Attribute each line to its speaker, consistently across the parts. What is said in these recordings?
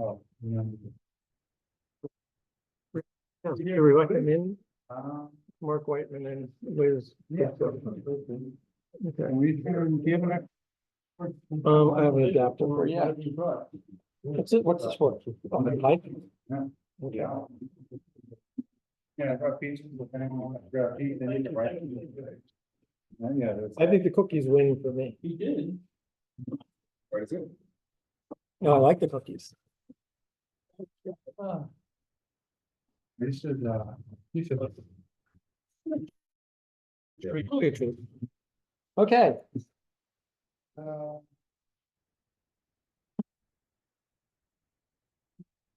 Speaker 1: Oh, yeah.
Speaker 2: Do we recommend
Speaker 1: Um,
Speaker 2: Mark Whiteman and Liz?
Speaker 1: yeah.
Speaker 2: Okay,
Speaker 1: We can give it. a-
Speaker 2: um, I have an adapter for you.
Speaker 1: Yeah. you brought.
Speaker 2: What's it, what's this for? On the pipe? Okay.
Speaker 1: Yeah. Yeah, I got pieces of animal, I got teeth, and it's right. And Yeah, that's.
Speaker 2: I think the cookies win for me.
Speaker 1: He did. What is it?
Speaker 2: No, I like the cookies.
Speaker 1: We should, uh, you should.
Speaker 2: Pretty cookie treat. Okay,
Speaker 1: Uh,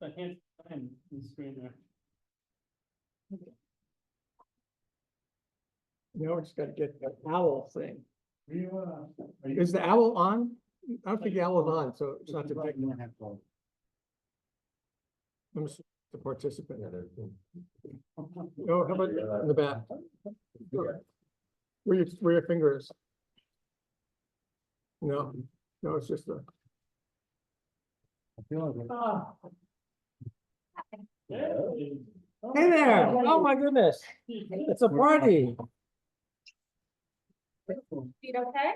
Speaker 3: I can't find the screen there.
Speaker 2: now we just gotta get the owl thing.
Speaker 1: Are you, uh? are you-
Speaker 2: Is the owl on? I don't think the owl is on, so it's not the,
Speaker 1: You don't have to-
Speaker 2: I'm just the participant. Oh, how about in the back?
Speaker 1: Okay.
Speaker 2: Where your, where your finger is. No, no, it's just the,
Speaker 1: I feel like it-
Speaker 3: Ah. Yeah.
Speaker 2: hey there, oh my goodness, it's a party.
Speaker 4: Feet okay?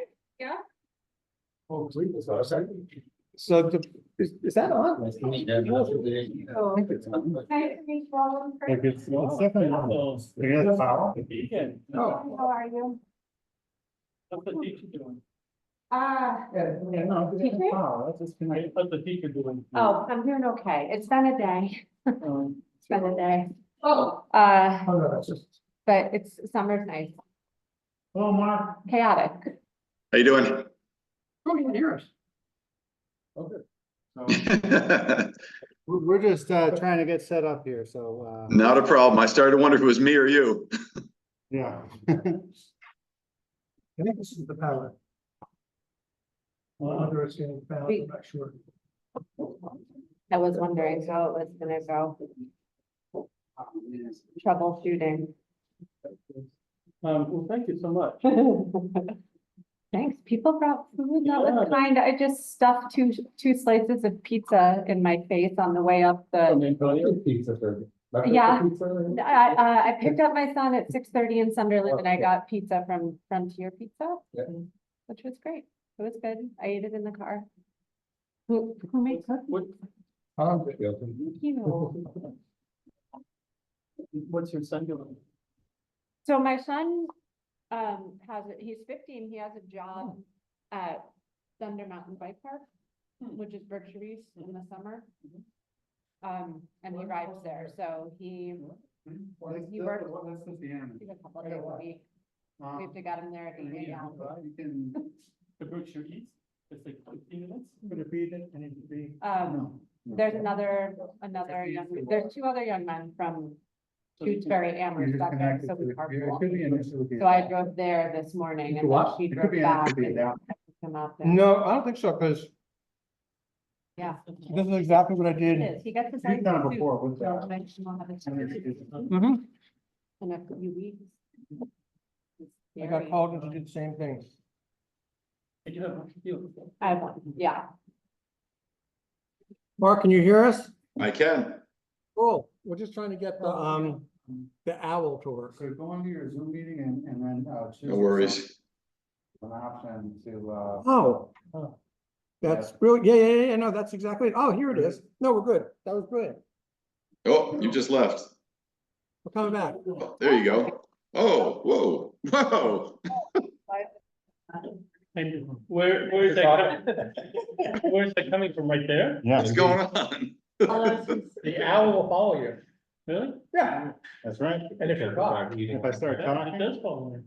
Speaker 1: Oh, sweet, it's outside.
Speaker 2: So the, is, is that on?
Speaker 1: That's not- I think it's on, but-
Speaker 4: Nice to meet you all in
Speaker 1: Like
Speaker 4: person.
Speaker 1: it's, it's definitely. on. They got a towel?
Speaker 3: Beacon.
Speaker 2: Oh.
Speaker 4: How are you?
Speaker 3: That's what Beacon doing.
Speaker 4: Uh,
Speaker 1: Yeah, yeah, no, it's
Speaker 4: Excuse
Speaker 1: a
Speaker 4: me?
Speaker 1: towel, that's just been like-
Speaker 3: That's what Beacon doing.
Speaker 4: oh, I'm doing okay. It's been a day.
Speaker 3: Um,
Speaker 4: It's been a day. Oh. Uh,
Speaker 1: Oh, no, that's just-
Speaker 4: but it's, summer's nice,
Speaker 1: Oh, Mark.
Speaker 4: chaotic.
Speaker 5: How you doing?
Speaker 1: Oh, you can hear us. Okay. So,
Speaker 6: We're, we're just, uh, trying to get set up here, so, uh,
Speaker 5: Not a problem. I started to wonder if it was me or you.
Speaker 1: yeah.
Speaker 2: I think this is the palette.
Speaker 1: Well,
Speaker 2: Under it's getting found,
Speaker 4: I'm
Speaker 2: not sure.
Speaker 4: I was wondering how it was gonna go troubleshooting.
Speaker 3: um, well, thank you so much.
Speaker 4: Thanks. People brought food. That was kind. I just stuffed two, two slices of pizza in my face on the way up the
Speaker 3: And then, Tony,
Speaker 1: Pizza for. breakfast
Speaker 4: Yeah.
Speaker 1: pizza?
Speaker 4: I, uh, I picked up my son at six thirty in Sunderland and I got pizza from Frontier Pizza.
Speaker 1: Yeah.
Speaker 4: Which was great. It was good. I ate it in the car. Who, who made
Speaker 3: What,
Speaker 4: cookies?
Speaker 1: I'm just joking.
Speaker 4: You know.
Speaker 3: what's your son doing?
Speaker 4: So my son, um, has, a- he's fifteen. He has a
Speaker 3: Oh.
Speaker 4: job at Thunder Mountain Bike Park,
Speaker 3: Hmm.
Speaker 4: which is Berkshire East in the summer.
Speaker 3: Mhm.
Speaker 4: Um, and he rides there, so he,
Speaker 1: Well, that's-
Speaker 4: You
Speaker 1: that's
Speaker 4: were-
Speaker 1: the one- that's just the animal.
Speaker 4: he's a couple days a week.
Speaker 1: Um,
Speaker 4: We've got him there at
Speaker 1: and
Speaker 4: eight
Speaker 1: yeah,
Speaker 4: now.
Speaker 1: well, You can,
Speaker 3: The Berkshire Eats? It's like fifteen minutes?
Speaker 1: could it be that, and it could be.
Speaker 4: Um,
Speaker 1: no, no.
Speaker 4: There's another, another
Speaker 1: That'd be
Speaker 4: young,
Speaker 1: useful.
Speaker 4: there's two other young men from
Speaker 3: So you can-
Speaker 4: Tewksbury
Speaker 1: You're
Speaker 4: Amherst
Speaker 1: just
Speaker 4: up there,
Speaker 1: connected
Speaker 4: so
Speaker 1: to
Speaker 4: we
Speaker 1: the- It could
Speaker 4: carpool.
Speaker 1: be an issue with the.
Speaker 4: So I drove there this morning
Speaker 1: It's
Speaker 4: and then
Speaker 1: what?
Speaker 4: she
Speaker 1: It could
Speaker 4: drove
Speaker 1: be an- it
Speaker 4: back
Speaker 1: could be
Speaker 4: and
Speaker 1: that.
Speaker 4: picked him up. and-
Speaker 6: no, I don't think so, because
Speaker 4: Yeah.
Speaker 6: this is exactly what I
Speaker 4: It
Speaker 6: did.
Speaker 4: is, he got to.
Speaker 1: You've done it before, what's
Speaker 4: So
Speaker 1: that?
Speaker 4: maybe she'll have a
Speaker 1: I mean,
Speaker 4: chance
Speaker 1: it's-
Speaker 2: Mm-hmm.
Speaker 6: Mhm.
Speaker 4: In a few weeks. It's
Speaker 6: I got
Speaker 4: scary.
Speaker 6: called in to do the same thing.
Speaker 3: And you have a few.
Speaker 4: I want, yeah,
Speaker 2: Mark, can you hear us?
Speaker 5: I can.
Speaker 2: Cool, Oh, we're just trying to get the, um, the owl to work.
Speaker 1: So go into your Zoom meeting and, and then, uh. choose
Speaker 5: No worries.
Speaker 1: An option to, uh.
Speaker 2: Oh.
Speaker 3: Oh.
Speaker 2: That's brilliant, yeah, yeah, yeah, yeah, no, that's exactly, it. oh, here it is, no, we're good, that was brilliant,
Speaker 5: Oh, you just left.
Speaker 2: we're coming back.
Speaker 5: Oh, There you go. Oh, whoa, whoa.
Speaker 3: And where, where is that coming? Where's that coming from? Right there?
Speaker 1: Yeah.
Speaker 5: What's going on?
Speaker 3: The owl will follow you. Really?
Speaker 1: Yeah. That's right.
Speaker 3: And if you're caught.
Speaker 1: If I start
Speaker 3: Yeah, It
Speaker 1: talking.
Speaker 3: does follow Um, you.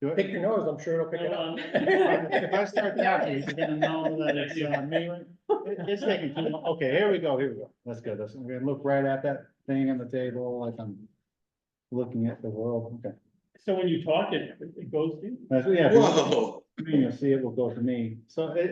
Speaker 1: do it.
Speaker 2: your nose, I'm sure it'll
Speaker 1: If I start talking, you're gonna know that it's, uh, me. It- It's taking too long. Okay, here we go, here we go. That's good. That's, I'm gonna look right at that thing on the table like I'm looking at the world. Okay.
Speaker 3: So when you talk, it, it goes to you?
Speaker 1: That's, yeah, if
Speaker 5: Whoa.
Speaker 1: you're- you'll see it will go to me. So it,